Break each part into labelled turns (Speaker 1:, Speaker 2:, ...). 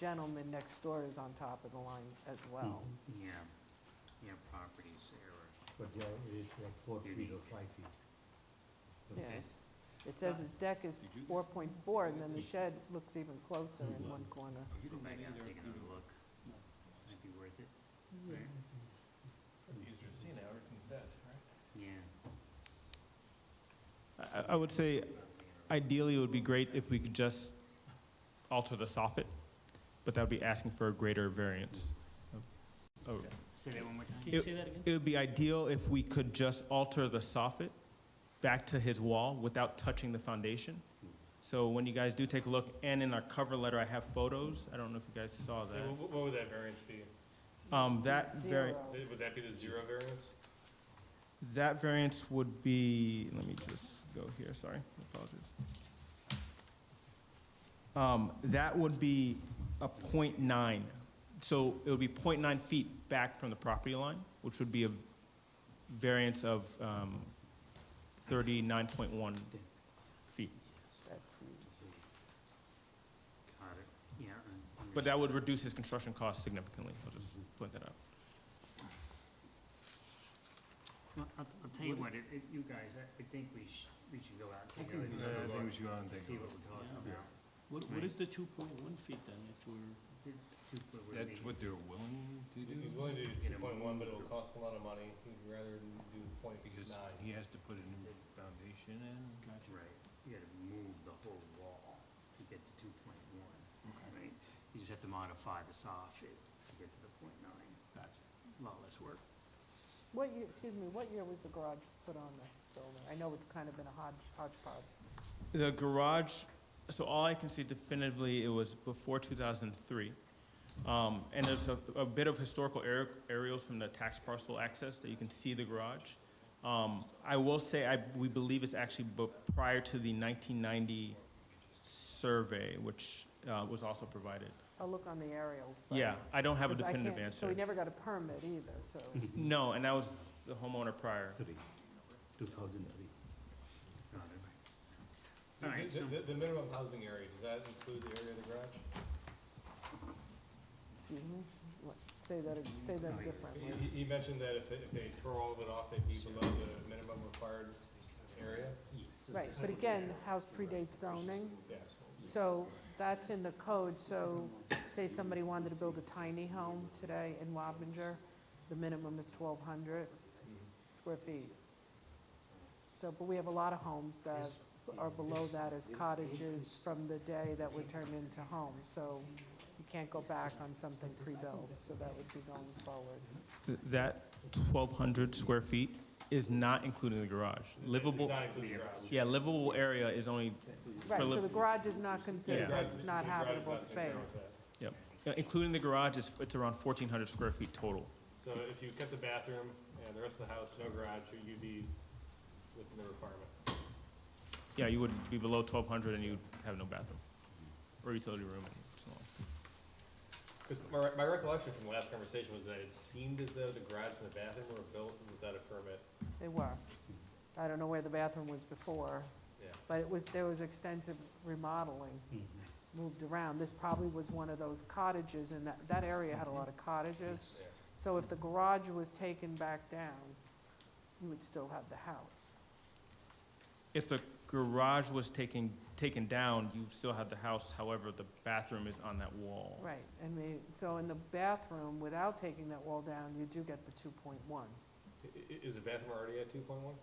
Speaker 1: gentleman next door is on top of the line as well.
Speaker 2: Yeah, yeah, properties there.
Speaker 3: But yeah, it is like four feet or
Speaker 2: Unique.
Speaker 3: five feet. The
Speaker 1: Yeah.
Speaker 3: fifth.
Speaker 4: Hmm.
Speaker 1: It says his deck is
Speaker 5: Did you-
Speaker 1: four point four, and then the shed looks even closer in
Speaker 5: Hmm.
Speaker 1: one corner.
Speaker 2: You go
Speaker 5: didn't
Speaker 2: back
Speaker 5: get
Speaker 2: out,
Speaker 5: either,
Speaker 2: take
Speaker 5: did
Speaker 2: another
Speaker 5: you?
Speaker 2: look,
Speaker 5: No.
Speaker 2: might be worth it,
Speaker 5: Pretty easier to see now, everything's dead, right?
Speaker 2: yeah.
Speaker 4: I- I would say ideally, it would be great if we could just alter the soffit, but that would be asking for a greater variance. Oh.
Speaker 2: S- Say that one more time?
Speaker 4: you It- say
Speaker 2: that again?
Speaker 4: It would be ideal if we could just alter the soffit back to his wall without touching the foundation. So when you guys do take a look, and in our cover letter, I have photos. I don't know if you guys saw
Speaker 5: Yeah,
Speaker 4: that.
Speaker 5: what, what would that variance be?
Speaker 4: Um, that vari-
Speaker 1: Zero.
Speaker 5: Th- Would that be the zero variance?
Speaker 4: that variance would be, let me just go here, sorry, apologies. Um, that would be a point nine. So it would be point nine feet back from the property line, which would be a variance of, um, thirty-nine point one feet.
Speaker 1: That's huge.
Speaker 2: Got it, yeah. un-
Speaker 4: But that would
Speaker 2: understood.
Speaker 4: reduce his construction cost significantly, I'll just point that out.
Speaker 2: Well, I'll, I'll tell you what, it, it- you guys, I, I think we should, we should go out
Speaker 5: I
Speaker 2: and take a
Speaker 5: think
Speaker 2: look
Speaker 5: we should go out and
Speaker 2: to
Speaker 5: take a
Speaker 2: see what
Speaker 5: look.
Speaker 2: we're talking
Speaker 5: Yeah.
Speaker 2: about.
Speaker 6: What,
Speaker 2: Right.
Speaker 6: what is the two point one feet then, if we're,
Speaker 2: Th- two foot would be-
Speaker 7: That's what they're willing to do?
Speaker 5: He's willing to do
Speaker 2: Get
Speaker 5: two
Speaker 2: him.
Speaker 5: point one, but it'll cost a lot of money, he'd rather do point
Speaker 7: Because
Speaker 5: nine.
Speaker 7: he has to put a new foundation in?
Speaker 2: Right, you gotta move the whole wall to get to two point one, right? You just have to modify the soffit to get to the point nine. Gotcha. Lot less work.
Speaker 1: What year, excuse me, what year was the garage put on the building? I know it's kind of been a hodge, hodgepodge.
Speaker 4: The garage, so all I can see definitively, it was before 2003. Um, And there's a, a bit of historical aer- aerials from the tax parcel access that you can see the garage. Um, I will say, I, we believe it's actually bu- prior to the 1990 survey, which uh, was also provided.
Speaker 1: I'll look on the aerials. but-
Speaker 4: Yeah, I don't have a
Speaker 1: 'cause I
Speaker 4: definitive
Speaker 1: can't- So we
Speaker 4: answer.
Speaker 1: never got a permit either, so.
Speaker 4: No, and that was the homeowner prior.
Speaker 3: Three, two thousand three.
Speaker 2: Got it.
Speaker 5: The-
Speaker 2: All right,
Speaker 5: the-
Speaker 2: so,
Speaker 5: The, the minimum housing area, does that include the area of the garage?
Speaker 1: Excuse me? What- Say that, say that differently.
Speaker 5: He- He, he mentioned that if, they- if they tore all of it off, they'd be below the minimum required area?
Speaker 1: Right, but again, the house predates zoning,
Speaker 5: Yeah.
Speaker 1: so that's in the code, so say somebody wanted to build a tiny home today in Wappinger, the minimum is 1,200 square feet. So, but we have a lot of homes that are below that as cottages from the day that were turned into homes, so you can't go back on something pre-built, so that would be going forward.
Speaker 4: Th- That 1,200 square feet is not included in the garage.
Speaker 5: Does
Speaker 4: Livable,
Speaker 5: not include the garage.
Speaker 4: yeah, livable area is only
Speaker 1: Right,
Speaker 4: For
Speaker 1: so
Speaker 4: liv-
Speaker 1: the garage is not considered,
Speaker 4: Yeah.
Speaker 1: that's not habitable space.
Speaker 4: Yeah, Including the garage, it's, it's around 1,400 square feet total.
Speaker 5: So if you kept the bathroom and the rest of the house, no garage, you'd be within the requirement.
Speaker 4: Yeah, you would be below 1,200 and you'd have no bathroom or utility room and so on.
Speaker 5: Because my, my recollection from the last conversation was that it seemed as though the garage and the bathroom were built without a permit.
Speaker 1: They were. I don't know where the bathroom was before,
Speaker 5: Yeah.
Speaker 1: but it was, there was extensive remodeling, moved around. This probably was one of those cottages, and that, that area had a lot of cottages.
Speaker 5: Yeah.
Speaker 1: So if the garage was taken back down, you would still have the house.
Speaker 4: If the garage was taken, taken down, you still have the house, however, the bathroom is on that wall.
Speaker 1: Right, I mean, so in the bathroom, without taking that wall down, you do get the two point one,
Speaker 5: I- i- is the bathroom already at two point one?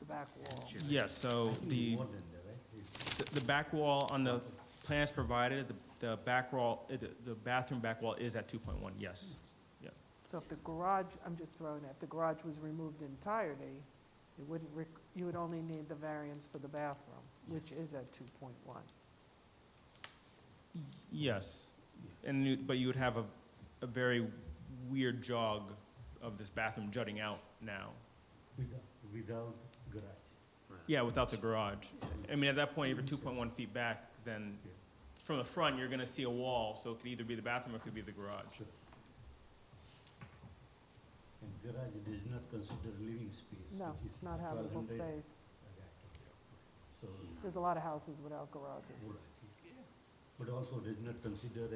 Speaker 1: the back wall.
Speaker 4: Yes, so the,
Speaker 3: More than that, right? It's-
Speaker 4: the- the back wall on the plans provided, the, the back wall, uh, the, the bathroom back wall is at 2.1, yes.
Speaker 1: So if the garage, I'm just throwing it, if the garage was removed entirety, it wouldn't, rec- you would only need the variance for the bathroom, which is at 2.1.
Speaker 4: Yes. And you, but you would have a, a very weird jog of this bathroom jutting out now.
Speaker 3: Without, without garage.
Speaker 4: Yeah, without the garage. I mean, at that point, if you're two point one feet back, then from the front, you're gonna see a wall, so it could either be the bathroom or it could be the garage.
Speaker 3: And garage does not consider living space.
Speaker 1: No,
Speaker 3: which is
Speaker 1: it's not habitable
Speaker 3: 1200.
Speaker 1: space.
Speaker 3: Okay. So,
Speaker 1: There's a lot of houses without garages.
Speaker 3: all right. but also does not consider